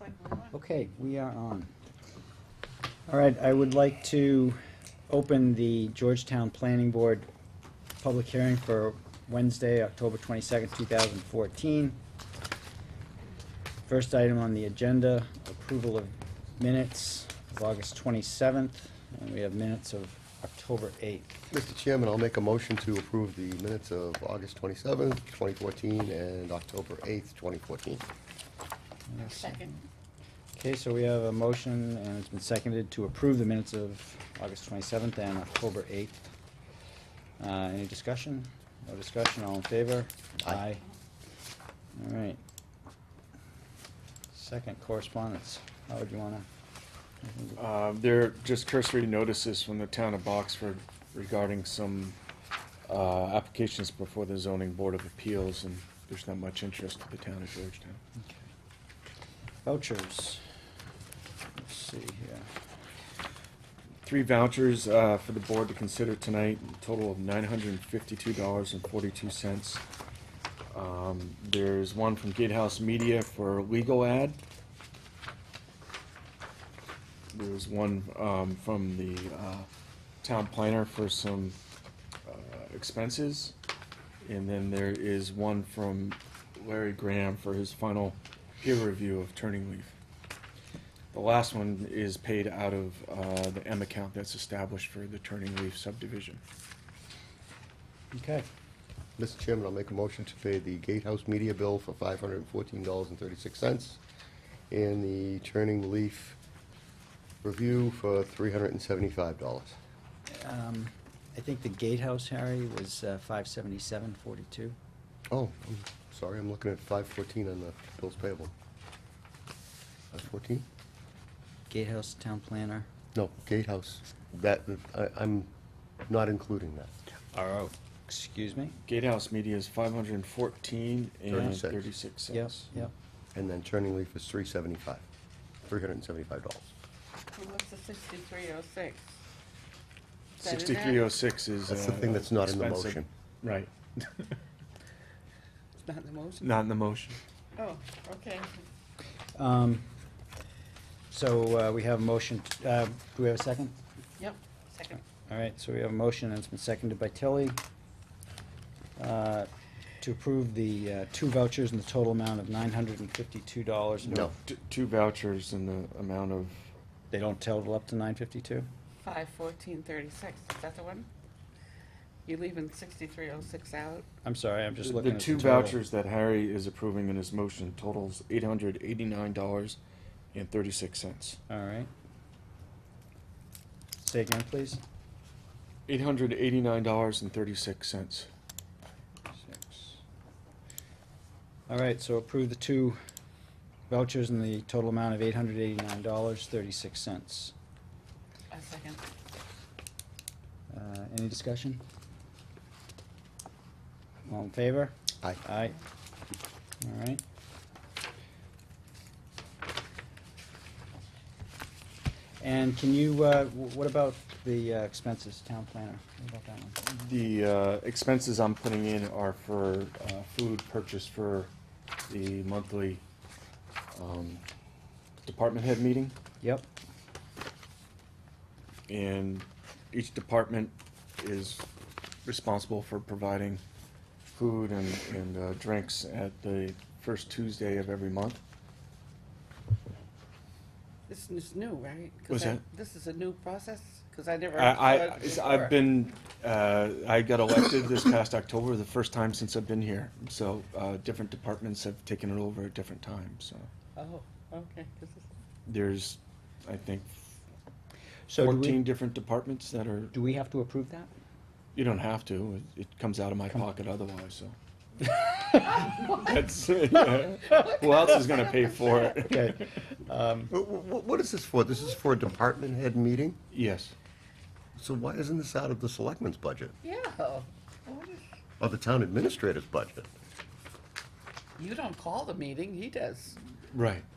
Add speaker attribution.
Speaker 1: like we're on.
Speaker 2: Okay, we are on. All right, I would like to open the Georgetown Planning Board public hearing for Wednesday, October twenty-second, two thousand fourteen. First item on the agenda, approval of minutes of August twenty-seventh, and we have minutes of October eighth.
Speaker 3: Mr. Chairman, I'll make a motion to approve the minutes of August 27th, 2014, and October 8th, 2014.
Speaker 1: Second.
Speaker 2: Okay, so we have a motion, and it's been seconded to approve the minutes of August 27th and October 8th. Uh, Any discussion? No discussion, all in favor?
Speaker 3: Aye.
Speaker 2: All right. Second correspondence, Howard, you wanna?
Speaker 4: Uh, There are just cursory notices from the town of Boxford regarding some uh, applications before the zoning board of appeals, and there's not much interest to the town of Georgetown.
Speaker 2: Vouchers. Let's see here.
Speaker 4: Three vouchers uh, for the board to consider tonight, a total of nine hundred and fifty-two dollars and forty-two cents. Um, There's one from Gatehouse Media for a legal ad. There's one um, from the uh, town planner for some uh, expenses. And then there is one from Larry Graham for his final peer review of Turning Leaf. The last one is paid out of uh, the M account that's established for the Turning Leaf subdivision.
Speaker 2: Okay,
Speaker 3: Mr. Chairman, I'll make a motion to pay the Gatehouse Media bill for $514.36, and the Turning Leaf Review for $375.
Speaker 2: um, I think the gatehouse, Harry, was uh, 577.42.
Speaker 3: Oh, I'm sorry, I'm looking at 514 on the bills payable. 514?
Speaker 2: Gatehouse Town Planner.
Speaker 3: No, Gatehouse. That, I- I'm not including that.
Speaker 2: RO. Excuse me?
Speaker 4: Gatehouse Media is five hundred and fourteen and
Speaker 3: Thirty-six.
Speaker 4: thirty-six
Speaker 2: Yep,
Speaker 4: cents.
Speaker 2: yep.
Speaker 3: And then Turning Leaf is three seventy-five, three hundred and seventy-five dollars.
Speaker 1: Well, what's the sixty-three oh six?
Speaker 4: Sixty-three oh six is.
Speaker 3: That's the
Speaker 4: uh,
Speaker 3: thing that's not in the
Speaker 4: expensive.
Speaker 3: motion.
Speaker 4: Right,
Speaker 1: It's not in the motion?
Speaker 4: not in the motion.
Speaker 1: Oh, okay.
Speaker 2: Um, So uh, we have a motion, t- uh, do we have a second?
Speaker 1: Yep, second.
Speaker 2: All right, so we have a motion, and it's been seconded by Tilly, uh, to approve the uh, two vouchers in the total amount of $952.
Speaker 3: No.
Speaker 4: T- Two vouchers in the amount of,
Speaker 2: They don't total up to 952?
Speaker 1: Five fourteen thirty-six, is that the one? You leaving sixty-three oh six out?
Speaker 2: I'm sorry, I'm just looking
Speaker 4: the
Speaker 2: at the
Speaker 4: two
Speaker 2: total.
Speaker 4: vouchers that Harry is approving in his motion totals eight hundred eighty-nine dollars and thirty-six cents.
Speaker 2: All right. Say again, please.
Speaker 4: Eight hundred eighty-nine dollars and thirty-six cents.
Speaker 2: Six. All right, so approve the two vouchers in the total amount of $889.36.
Speaker 1: A second.
Speaker 2: Uh, Any discussion? All in favor?
Speaker 3: Aye.
Speaker 2: Aye. All right. And can you, uh, wh- what about the uh, expenses, town planner? What about that one?
Speaker 4: The uh, expenses I'm putting in are for uh, food purchased for the monthly um, department head meeting.
Speaker 2: Yep,
Speaker 4: And each department is responsible for providing food and, and uh, drinks at the first Tuesday of every month.
Speaker 1: This is new, right? 'Cause
Speaker 4: What's
Speaker 1: I-
Speaker 4: that?
Speaker 1: This is a new process, because I never.
Speaker 4: I,
Speaker 1: saw
Speaker 4: I,
Speaker 1: it before.
Speaker 4: I've been, uh, I got elected this past October, the first time since I've been here. So, uh, different departments have taken it over at different times, so.
Speaker 1: Oh, okay, this is,
Speaker 4: There's, I think,
Speaker 2: so do
Speaker 4: fourteen
Speaker 2: we,
Speaker 4: different departments that are,
Speaker 2: do we have to approve that?
Speaker 4: you don't have to, it, it comes out of my pocket otherwise, so. That's, yeah. who else is gonna pay for it?
Speaker 2: Okay.
Speaker 3: Uh, What is this for? This is for a department head meeting?
Speaker 4: Yes,
Speaker 3: So why isn't this out of the selectmen's budget
Speaker 1: yeah. What is-
Speaker 3: or the town administrator's budget?
Speaker 1: You don't call the meeting, he does.
Speaker 4: right.